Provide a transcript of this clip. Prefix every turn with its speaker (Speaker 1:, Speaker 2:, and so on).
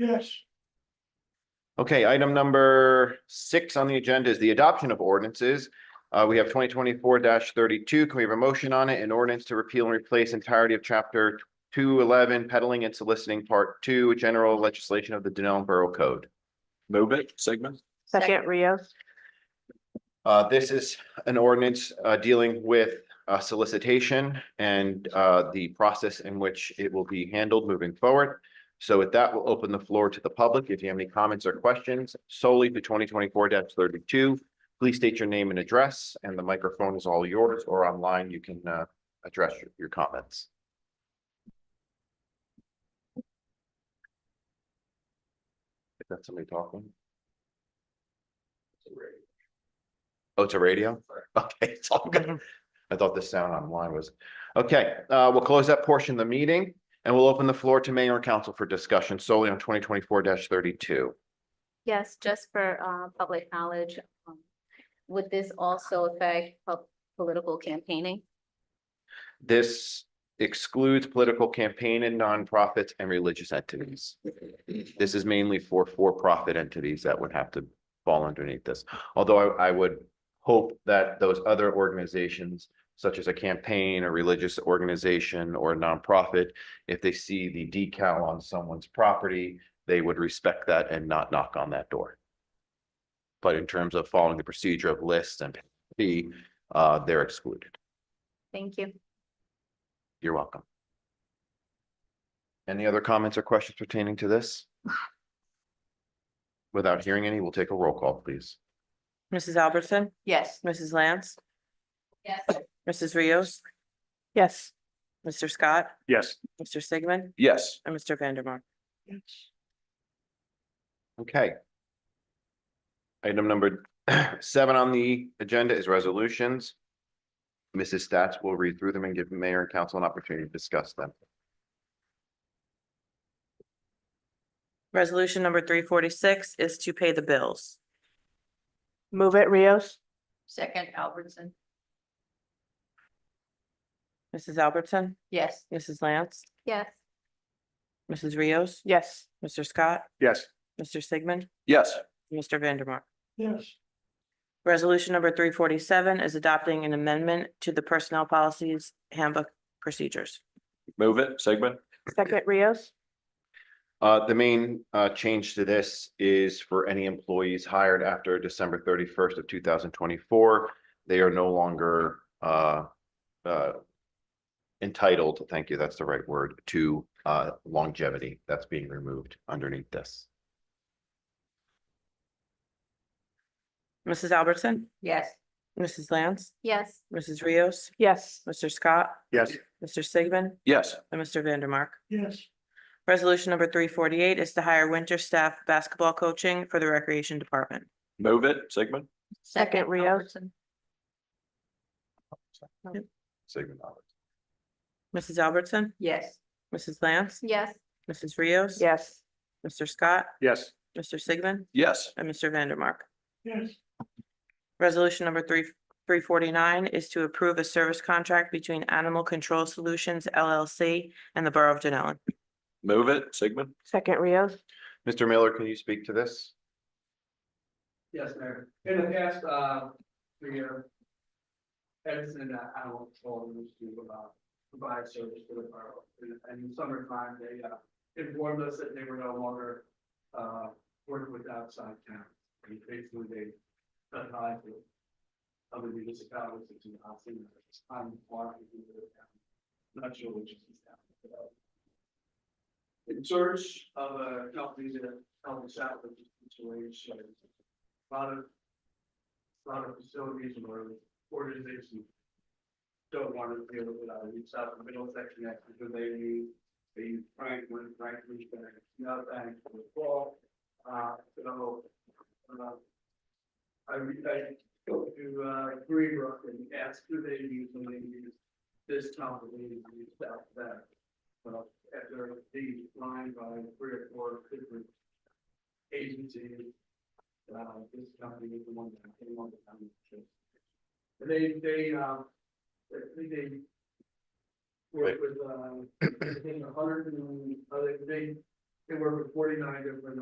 Speaker 1: Yes.
Speaker 2: Okay, item number six on the agenda is the adoption of ordinances. Uh, we have twenty twenty-four thirty-two. Can we have a motion on it? An ordinance to repeal and replace entirety of chapter two eleven peddling and soliciting part two, general legislation of the Denell Borough Code.
Speaker 3: Move it, Sigmund.
Speaker 4: Second, Rios.
Speaker 2: Uh, this is an ordinance, uh, dealing with, uh, solicitation and, uh, the process in which it will be handled moving forward. So with that, we'll open the floor to the public. If you have any comments or questions solely to twenty twenty-four thirty-two, please state your name and address, and the microphone is all yours, or online, you can, uh, address your- your comments. Is that somebody talking? Oh, it's a radio? Okay, it's all good. I thought the sound online was, okay, uh, we'll close that portion of the meeting and we'll open the floor to mayor and council for discussion solely on twenty twenty-four thirty-two.
Speaker 5: Yes, just for uh public knowledge. um, Would this also affect pub- political campaigning?
Speaker 2: This excludes political campaign and nonprofits and religious entities. This is mainly for for-profit entities that would have to fall underneath this. Although I, I would hope that those other organizations, such as a campaign, a religious organization, or a nonprofit, if they see the decal on someone's property, they would respect that and not knock on that door. But in terms of following the procedure of lists and fee, uh, they're excluded.
Speaker 5: Thank you.
Speaker 2: You're welcome. Any other comments or questions pertaining to this? Without hearing any, we'll take a roll call, please.
Speaker 6: Mrs. Albertson,
Speaker 4: Yes.
Speaker 6: Mrs. Lance,
Speaker 5: Yes.
Speaker 6: Mrs. Rios,
Speaker 4: Yes.
Speaker 6: Mr. Scott,
Speaker 3: Yes.
Speaker 6: Mr. Sigmund,
Speaker 3: Yes.
Speaker 6: and Mr. Vandermark.
Speaker 2: Okay. Item number seven on the agenda is resolutions. Mrs. Stats will read through them and give mayor and council an opportunity to discuss them.
Speaker 6: Resolution number three forty-six is to pay the bills.
Speaker 4: Move it, Rios.
Speaker 5: Second, Albertson.
Speaker 6: Mrs. Albertson,
Speaker 4: Yes.
Speaker 6: Mrs. Lance,
Speaker 5: Yes.
Speaker 6: Mrs. Rios,
Speaker 4: Yes.
Speaker 6: Mr. Scott,
Speaker 3: Yes.
Speaker 6: Mr. Sigmund,
Speaker 3: Yes.
Speaker 6: and Mr. Vandermark.
Speaker 1: Yes.
Speaker 6: Resolution number three forty-seven is adopting an amendment to the Personnel Policies Handbook Procedures.
Speaker 3: Move it, Sigmund.
Speaker 4: Second, Rios.
Speaker 2: Uh, the main, uh, change to this is for any employees hired after December thirty-first of two thousand twenty-four. They are no longer, uh, uh, entitled, thank you, that's the right word, to, uh, longevity. That's being removed underneath this.
Speaker 6: Mrs. Albertson,
Speaker 4: Yes.
Speaker 6: Mrs. Lance,
Speaker 5: Yes.
Speaker 6: Mrs. Rios,
Speaker 4: Yes.
Speaker 6: Mr. Scott,
Speaker 3: Yes.
Speaker 6: Mr. Sigmund,
Speaker 3: Yes.
Speaker 6: and Mr. Vandermark.
Speaker 1: Yes.
Speaker 6: Resolution number three forty-eight is to hire winter staff basketball coaching for the Recreation Department.
Speaker 3: Move it, Sigmund.
Speaker 4: Second, Rios.
Speaker 2: Sigmund Oliver.
Speaker 6: Mrs. Albertson,
Speaker 4: Yes.
Speaker 6: Mrs. Lance,
Speaker 5: Yes.
Speaker 6: Mrs. Rios.
Speaker 4: Yes.
Speaker 6: Mr. Scott,
Speaker 3: Yes.
Speaker 6: Mr. Sigmund,
Speaker 3: Yes.
Speaker 6: and Mr. Vandermark.
Speaker 1: Yes.
Speaker 6: Resolution number three, three forty-nine is to approve a service contract between Animal Control Solutions LLC and the Borough of Denellen.
Speaker 3: Move it, Sigmund.
Speaker 4: Second, Rios.
Speaker 2: Mr. Miller, can you speak to this?
Speaker 7: Yes, Mayor. In the past, uh, three year. Edison, uh, animal control used to, uh, provide service to the borough. And- And in summertime, they, uh, informed us that they were no longer, uh, working with outside town. And basically, they cut ties with other municipalities that do not see them. It's time to mark it in the town. Not sure which is down. In search of a company that helps us out with the situation lot of, lot of facilities or organizations don't want to deal with that, it's out the middle section, that's because they use, they use Franklin, Franklin's gonna, you know, thanks for the fall. Uh, so, uh, I, re- I go to, uh, Greenbrook and ask who they use, and they use this company, they use that, that. uh, Well, after being lined by three or four different agencies, uh, this company is the one that came on the county. And they, they, uh, they, they work with, uh, I think a hundred and, uh, they, They work with forty-nine different